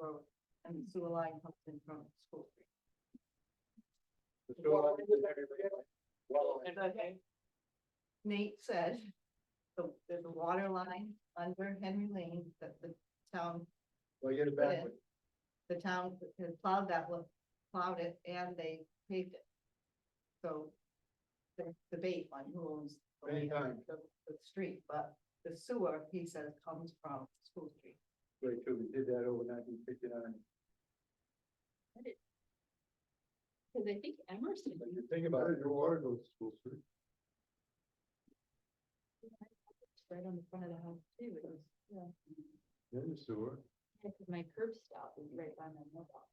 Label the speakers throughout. Speaker 1: Road, and the sewer line comes in from School Street.
Speaker 2: The sewer line is everywhere. Well,
Speaker 1: And I- Nate said, the, there's a water line under Henry Lane that the town,
Speaker 2: well, you're back.
Speaker 1: the town has plowed that one, plowed it, and they paved it. So there's debate on who owns the
Speaker 2: Many
Speaker 1: land,
Speaker 2: times.
Speaker 1: the, the street, but the sewer, he says, comes from School Street.
Speaker 2: Way too, we did that over nineteen fifty-nine.
Speaker 3: Cause I think Emerson,
Speaker 2: you think about it, your water goes to school street.
Speaker 3: it's right on the front of the house too, it was, yeah,
Speaker 2: Then the sewer,
Speaker 3: cause my curb stop was right by my mailbox.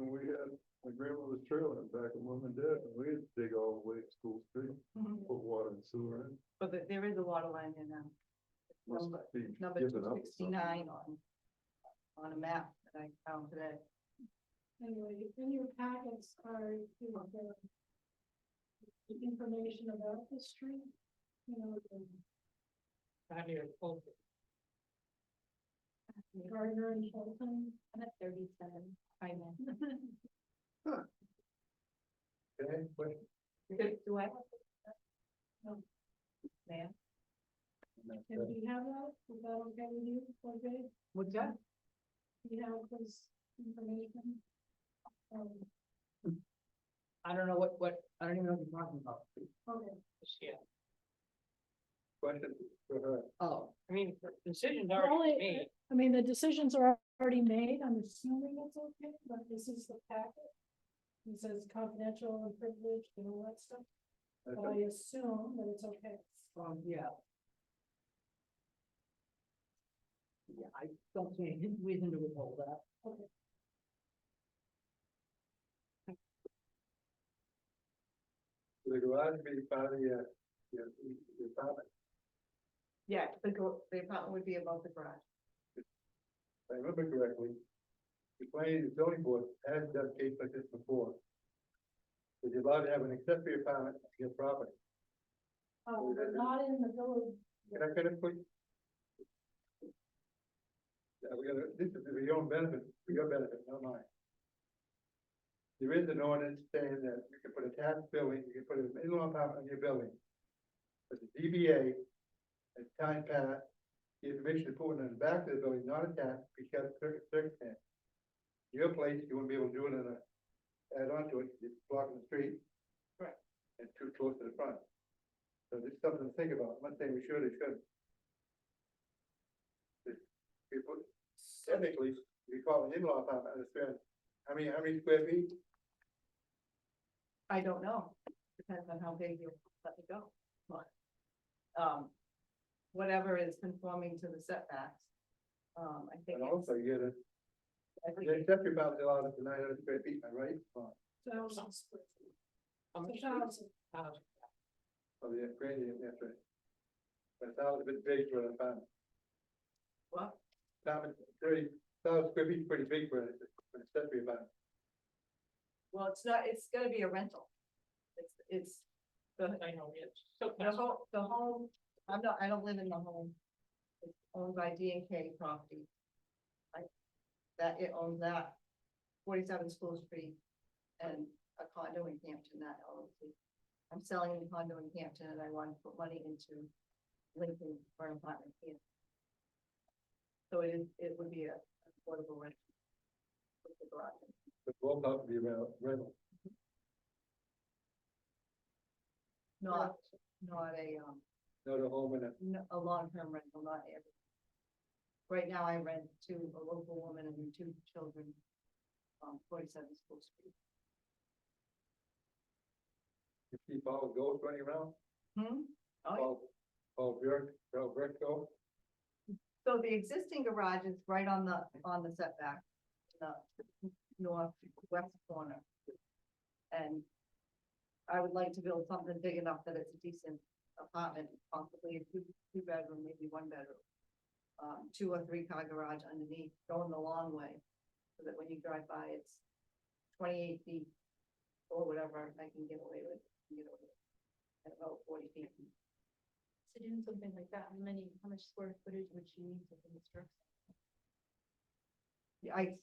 Speaker 2: and we had, my grandmother's trailer back in mom and dad, and we had to dig all the way to school street, put water and sewer in.
Speaker 1: But there- there is a water line in, um,
Speaker 2: Must
Speaker 1: Number-
Speaker 2: be
Speaker 1: number
Speaker 2: given up or
Speaker 1: two
Speaker 2: something.
Speaker 1: sixty-nine on, on a map that I found today.
Speaker 4: Anyway, in your packets are, you know, the. The information about the street, you know, the Gardner and Fulton.
Speaker 3: I'm at thirty-seven, I know.
Speaker 2: Okay, but-
Speaker 1: Do- Do I?
Speaker 4: No.
Speaker 1: Ma'am,
Speaker 4: And do you have that? Is that okay with you? Okay,
Speaker 1: what's that?
Speaker 4: do you have this information? Um,
Speaker 1: I don't know what, what, I don't even know what you're talking about.
Speaker 4: okay,
Speaker 2: Question for her.
Speaker 1: Oh,
Speaker 5: I mean, the decision's
Speaker 4: Well,
Speaker 5: already
Speaker 4: it-
Speaker 5: made,
Speaker 4: I mean, the decisions are already made. I'm assuming it's okay, but this is the packet. It says confidential and privileged and all that stuff,
Speaker 2: I
Speaker 4: but
Speaker 2: thought-
Speaker 4: Oh, I assume that it's okay.
Speaker 1: um, yeah. Yeah, I don't see any reason to withhold that.
Speaker 2: The garage being part of your, your, your apartment,
Speaker 1: Yeah, the, gar- the apartment would be above the garage.
Speaker 2: if I remember correctly. The planning and zoning board has done case like this before. But you're allowed to have an accessory apartment to your property.
Speaker 4: Uh, but not in the village
Speaker 2: Can I finish, please? Yeah, we gotta, this is for your own benefit, for your benefit, not mine. There is an ordinance saying that you can put a tax building, you can put an in-law apartment on your building. But the DBA, as time passed, the information is put in the back of the building, not attached, because of cir- circumstance. Your place, you wouldn't be able to do it in a, add on to it, it's blocking the street.
Speaker 1: Correct.
Speaker 2: And too close to the front. So this is something to think about, I'm not saying we should or shouldn't. It's- People, technically, we call an in-law apartment, I understand, I mean, how many square feet?
Speaker 1: I don't know, depends on how big you let it go, but. Um, whatever is conforming to the setbacks. Um, I think.
Speaker 2: And also, you get a,
Speaker 1: I think
Speaker 2: the accessory apartment allowed up to nine hundred square feet, am I right? Oh,
Speaker 4: thousand square feet.
Speaker 5: How
Speaker 4: It's
Speaker 5: much
Speaker 4: a thousand.
Speaker 5: uh,
Speaker 2: Oh, yeah, granted, that's right. But it's a bit big for an apartment,
Speaker 1: Well,
Speaker 2: apartment, thirty, thousand square feet, is pretty big for an for an accessory apartment.
Speaker 1: well, it's not, it's gonna be a rental. It's, it's the,
Speaker 5: I know, it's so
Speaker 1: the
Speaker 5: fast.
Speaker 1: home, the home, I'm not, I don't live in the home. It's owned by D and K property. I, that, it owns that forty-seven School Street and a condo in Hampton that owns. I'm selling the condo in Hampton and I want to put money into Lincoln for an apartment here. So it is, it would be a affordable rent. With the garage.
Speaker 2: But both have to be rental, rental.
Speaker 1: Not, not a, um,
Speaker 2: not a home and a,
Speaker 1: n- a long-term rental, not every. Right now I rent to a local woman and her two children on forty-seven School Street.
Speaker 2: you keep all the goats running around,
Speaker 1: Hmm? Oh, yeah.
Speaker 2: all, all Burke, all Burke go.
Speaker 1: So the existing garage is right on the, on the setback, the northwest corner. And I would like to build something big enough that it's a decent apartment, possibly a two, two bedroom, maybe one bedroom. Um, two or three car garage underneath, going the long way, so that when you drive by, it's twenty-eight feet or whatever I can get away with, you know, at about forty feet.
Speaker 3: So doing something like that, how many, how much square footage would you need to construct?
Speaker 1: Yeah, I,